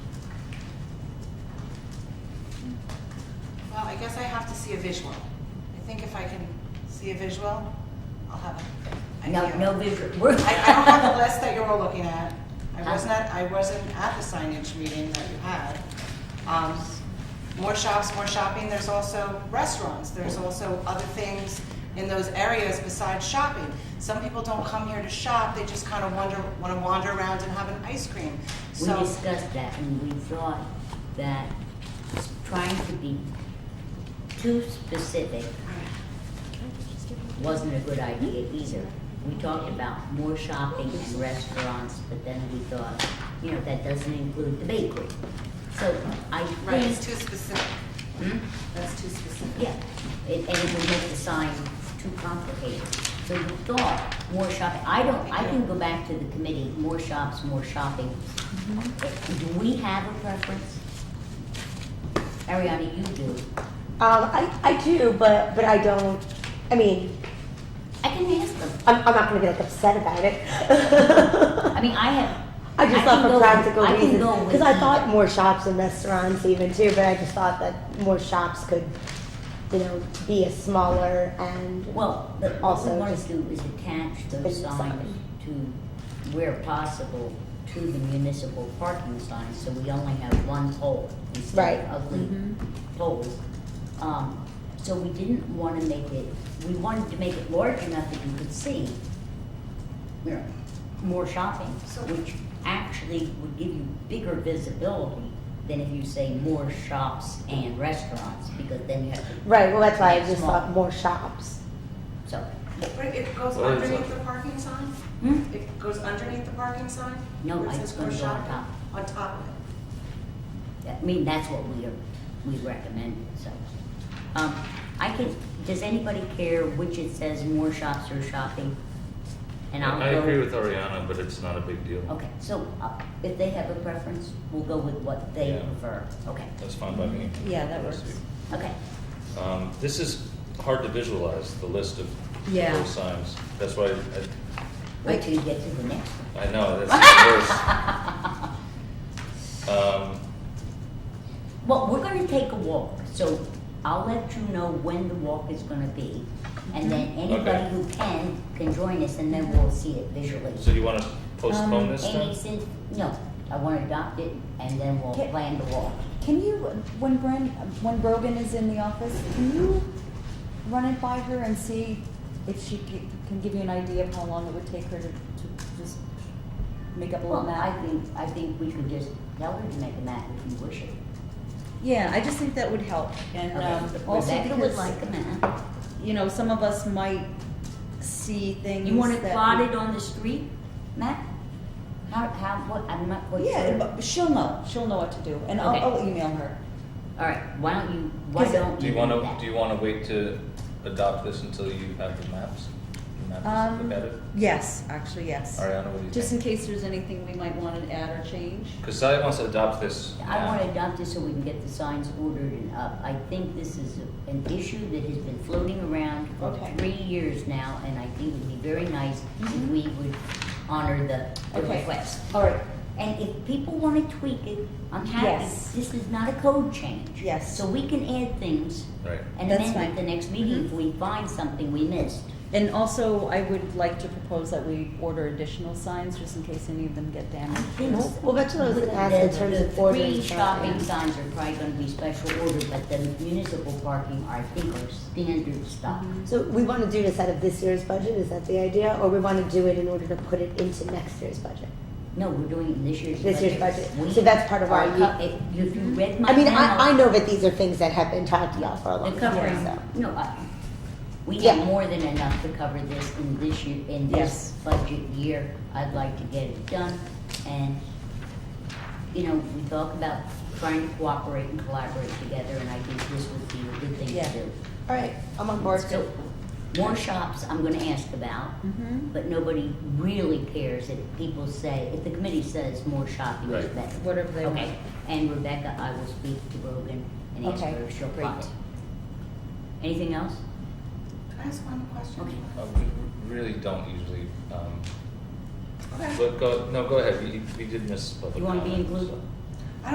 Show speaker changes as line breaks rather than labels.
guess I have to see a visual. I think if I can see a visual, I'll have an
No,
idea.
no visual. We're-
I, I don't have the list that you're all looking at. I
Uh-huh.
was not, I wasn't at the signage meeting that you had. Um, More shops, more shopping, there's also restaurants, there's also other things in those areas besides shopping. Some people don't come here to shop, they just kind of wander, want to wander around and have an ice cream.
We
So,
discussed that and we thought that s- trying to be too specific wasn't a good idea either. We talked about more shopping and restaurants, but then we thought, you know, that doesn't include the bakery. So I
right, it's
think,
too specific,
Hmm?
that's too specific.
yeah, It- and it would make the sign too complicated. So we thought, more shopping, I don't, I can go back to the committee, more shops, more shopping. Do we have a preference? Ariana, you do.
Um, I, I do, but, but I don't, I mean,
I can ask them.
I'm, I'm not gonna be like upset about it.
I mean, I have.
I just
can
thought for
go-
practical
I can
reasons,
go with
because I
the-
thought more shops and restaurants even too, but I just thought that more shops could, you know, be a smaller and.
Well, the- what we
Also
want
just-
to do is attach
Big
those signs
sign.
to, where possible, to the municipal parking signs, so we only have one pole instead
Right.
of ugly poles. Um, so we didn't wanna make it, we wanted to make it large enough that you could see, you know, more shopping,
So-
which actually would give you bigger visibility than if you say more shops and restaurants, because then you have to,
Right, well, that's why I
Yeah,
just
small.
thought more shops.
so.
But it goes
Well, it's
underneath
a-
the parking sign?
Hmm?
It goes underneath the parking sign?
No,
Where it
I-
says
it's gonna
no
go on
shopping?
top.
On top of it.
I mean, that's what we are, we recommend, so. Um, I can, does anybody care which it says more shops or shopping? And I'll
I
go.
agree with Ariana, but it's not a big deal.
Oh.
Okay, so uh, if they have a preference, we'll go with what they
Yeah.
prefer. Okay,
That's fine by me.
Yeah, that works.
okay.
Um, this is hard to visualize, the list of
Yeah.
those signs. That's why I,
Wait till you get to the next one.
I know, that's the worst. Um,
Well, we're gonna take a walk, so I'll let you know when the walk is gonna be. And then anybody
Okay.
who can, can join us and then we'll see it visually.
so you wanna postpone
Um,
this
Amy
then?
said, no, I want to adopt it and then we'll
Okay.
plan the walk.
Can you, when Bren, when Brogan is in the office, can you run it by her and see if she c- can give you an idea of how long it would take her to, to just make up a little
Well, I
map?
think, I think we could just tell her to make a map if you wish it.
Yeah, I just think that would help, and,
Okay.
um, also
Rebecca would like
because,
a map.
you know, some of us might see things
You want it
that
plotted on the street map? How, how, what, I'm not quite sure.
Yeah, but she'll know, she'll know what to do, and
Okay.
I'll, I'll email her.
All right, why don't you, why
'Cause-
don't
Do
you
you
do
wanna,
that?
do you wanna wait to adopt this until you have the maps? The maps
Um,
look at it?
Yes, actually, yes.
Ariana, what do you
Just in
think?
case there's anything we might want to add or change.
Cause Sally wants to adopt this
I want to
now.
adopt it so we can get the signs ordered and up. I think this is a- an issue that has been floating around for
Okay.
three years now, and I think it'd be very nice if
Mhm.
we would honor the the
Okay.
request.
All right,
And if people want to tweak it, I'm happy.
Yes.
This is not a code change.
Yes.
So we can add things
Right.
and
That's
amend
fine. Mm-hmm.
at the next meeting if we find something we missed.
And also, I would like to propose that we order additional signs, just in case any of them get damaged.
Well, well, that's what I was gonna ask in
The-
terms
the
of ordering
Three shopping
shopping.
signs are probably gonna be special order, but the municipal parking, I think, are standard
Mm-hmm.
stuff.
So we want to do this out of this year's budget, is that the idea, or we want to do it in order to put it into next year's budget?
No, we're doing it in this year's budget.
This year's budget.
We
So that's part of
are
our
co-
year.
If if you read my
I mean, I, I
memo,
know that these are things that have been taught to y'all for a long
The
time,
covering,
so.
no, I- we
Yeah.
have more than enough to cover this in this year, in this
Yes.
budget year. I'd like to get it done, and, you know, we talk about trying to cooperate and collaborate together, and I think this would be a good thing
Yeah.
to do.
All right, I'm on board.
So, more shops I'm gonna ask about,
Mm-hmm.
but nobody really cares if people say, if the committee says more shopping is
Right.
better.
Whatever they
Okay, and Rebecca, I will speak to Brogan and ask
Okay,
her if she'll
great.
plot it. Anything else?
Can I ask one question?
Okay.
Uh, we really don't usually, um,
Okay.
But go, no, go ahead, we, we did miss public
You wanna be
comment, so-
inclusive?